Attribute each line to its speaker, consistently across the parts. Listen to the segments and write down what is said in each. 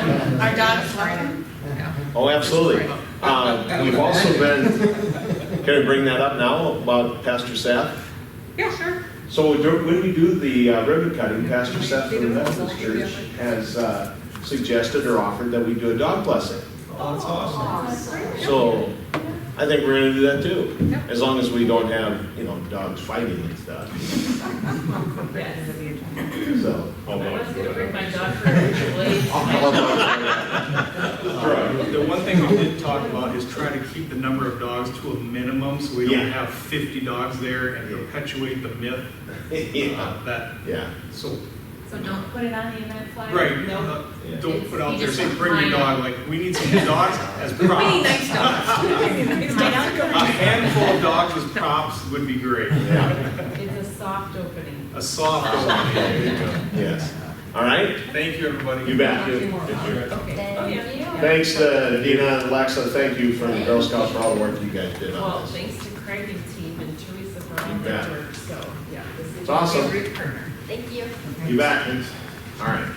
Speaker 1: our dogs love them?
Speaker 2: Oh, absolutely. Uh, We've also been, can I bring that up now about Pastor Seth?
Speaker 1: Yeah, sure.
Speaker 2: So dur- when we do the uh, ribbon cutting, Pastor Seth from the Methodist Church has uh, suggested or offered that we do a dog blessing.
Speaker 3: Oh, that's awesome.
Speaker 2: So I think we're gonna do that too,
Speaker 1: Yeah.
Speaker 2: as long as we don't have, you know, dogs fighting and stuff, so.
Speaker 4: I was gonna bring my dog for a
Speaker 3: The one thing we did talk about is try to keep the number of dogs to a minimum, so we
Speaker 2: Yeah.
Speaker 3: don't have fifty dogs there and
Speaker 2: Yeah.
Speaker 3: perpetuate the myth
Speaker 2: Yeah,
Speaker 3: uh, that,
Speaker 2: yeah,
Speaker 3: so,
Speaker 4: So don't put it on the event flyer?
Speaker 3: right,
Speaker 4: No.
Speaker 3: uh, don't put out
Speaker 4: You
Speaker 3: there,
Speaker 4: just
Speaker 3: say,
Speaker 4: want
Speaker 3: bring your
Speaker 4: mine.
Speaker 3: dog, like, we need some new dogs as
Speaker 1: We need
Speaker 3: props.
Speaker 1: nice dogs.
Speaker 3: A handful of dogs as props would be great.
Speaker 2: yeah,
Speaker 4: It's a soft opening.
Speaker 3: A soft dog, there you go.
Speaker 2: yes. All right,
Speaker 3: Thank you, everybody.
Speaker 2: you bet.
Speaker 4: Two more.
Speaker 5: Thank you.
Speaker 2: Thanks to Dina and Alexa, thank you for the Girl Scouts for all the work you guys did on
Speaker 4: Well,
Speaker 2: this.
Speaker 4: thanks to Craig and team and Teresa for all
Speaker 2: You bet.
Speaker 4: their work, so, yeah. this is-
Speaker 2: It's awesome.
Speaker 5: Thank you.
Speaker 2: You back? All right.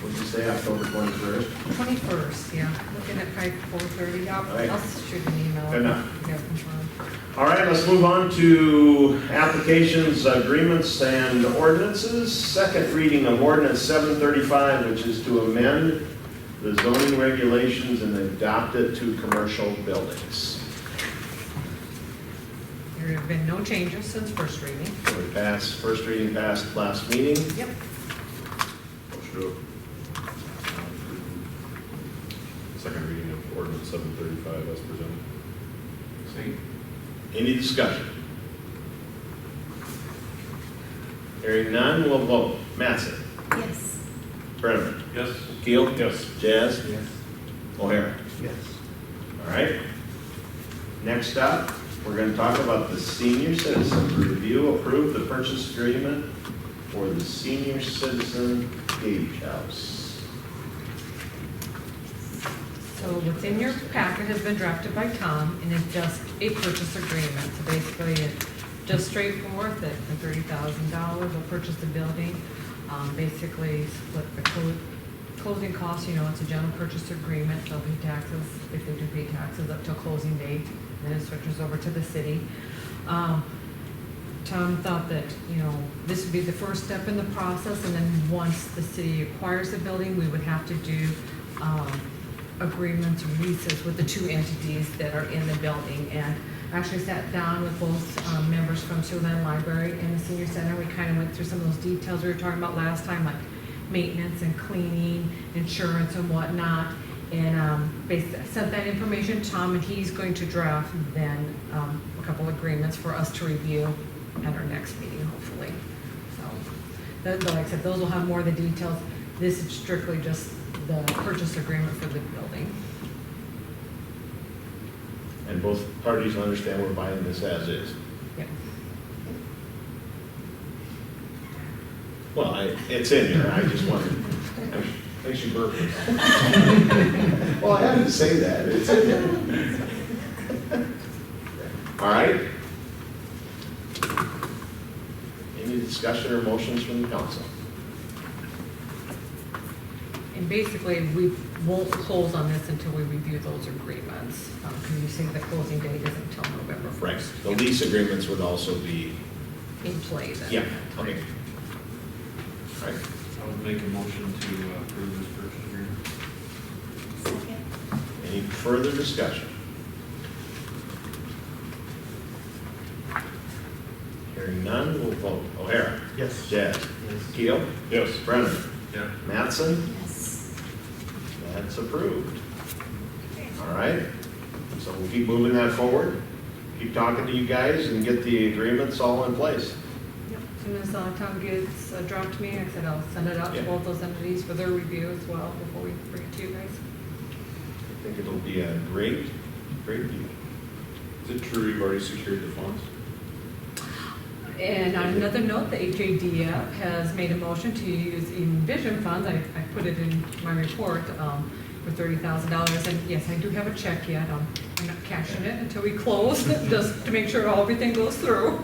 Speaker 2: What'd you say, October twenty-first?
Speaker 1: Twenty-first, yeah, looking at probably four-thirty,
Speaker 2: Right.
Speaker 1: I'll, I'll shoot an email.
Speaker 2: Good enough.
Speaker 1: You guys confirm.
Speaker 2: All right, let's move on to applications, agreements, and ordinances. Second reading of ordinance seven thirty-five, which is to amend the zoning regulations and adopt it to commercial buildings.
Speaker 1: There have been no changes since first reading.
Speaker 2: So we passed, first reading passed last meeting.
Speaker 1: Yep.
Speaker 6: Second reading of ordinance seven thirty-five as presented.
Speaker 2: Any discussion? Hearing none, we'll vote. Mattson?
Speaker 5: Yes.
Speaker 2: Brenneman?
Speaker 6: Yes.
Speaker 2: Keel?
Speaker 6: Yes.
Speaker 2: Jazz? Yes. O'Hara?
Speaker 3: Yes.
Speaker 2: All right. Next up, we're gonna talk about the senior citizen. Review, approve the purchase agreement for the senior citizen Gage House.
Speaker 1: So what's in your packet has been drafted by Tom, and it's just a purchase agreement. So basically, it's just straightforward that the thirty thousand dollars will purchase the building. Um, basically split the clo- closing costs, you know, it's a general purchase agreement, they'll pay taxes, if they do pay taxes up till closing date, and then it switches over to the city. Um, Tom thought that, you know, this would be the first step in the process, and then once the city acquires the building, we would have to do um, agreements or leases with the two entities that are in the building. And I actually sat down with both um, members from Siouxland Library and the Senior Center. We kind of went through some of those details we were talking about last time, like maintenance and cleaning, insurance and whatnot. And um, bas- sent that information to Tom, and he's going to draft then um, a couple agreements for us to review at our next meeting, hopefully. So, those- like I said, those will have more of the details. This is strictly just the purchase agreement for the building.
Speaker 2: And both parties understand we're buying this as is.
Speaker 1: Yes.
Speaker 2: Well, I- it's in here, I just wanted, makes you burp. Well, I had to say that, it's in there. All right? Any discussion or motions from the council?
Speaker 1: And basically, we won't close on this until we review those agreements, because you say the closing date is until November
Speaker 2: Right,
Speaker 1: 1st.
Speaker 2: the lease agreements would also be,
Speaker 1: In play then.
Speaker 2: yeah, okay. All right,
Speaker 7: I would make a motion to uh, approve this purchase agreement.
Speaker 5: Second.
Speaker 2: any further discussion? Hearing none, we'll vote. O'Hara?
Speaker 3: Yes.
Speaker 2: Jazz?
Speaker 7: Yes.
Speaker 2: Keel?
Speaker 6: Yes.
Speaker 2: Brennan?
Speaker 7: Yeah.
Speaker 2: Mattson?
Speaker 5: Yes.
Speaker 2: That's approved. All right, so we'll keep moving that forward, keep talking to you guys and get the agreements all in place.
Speaker 1: Yep. As Soon as uh, Tom gets uh, dropped me, I said I'll send it out to
Speaker 2: Yeah.
Speaker 1: both those entities for their review as well before we bring it to you guys.
Speaker 2: I think it'll be a great, great deal.
Speaker 6: Is it true you've already secured the funds?
Speaker 1: And on another note, the HADF has made a motion to use Envision funds, I, I put it in my report, um, for thirty thousand dollars, and yes, I do have a check yet, um, I'm not cashing it until we close, just to make sure everything goes through.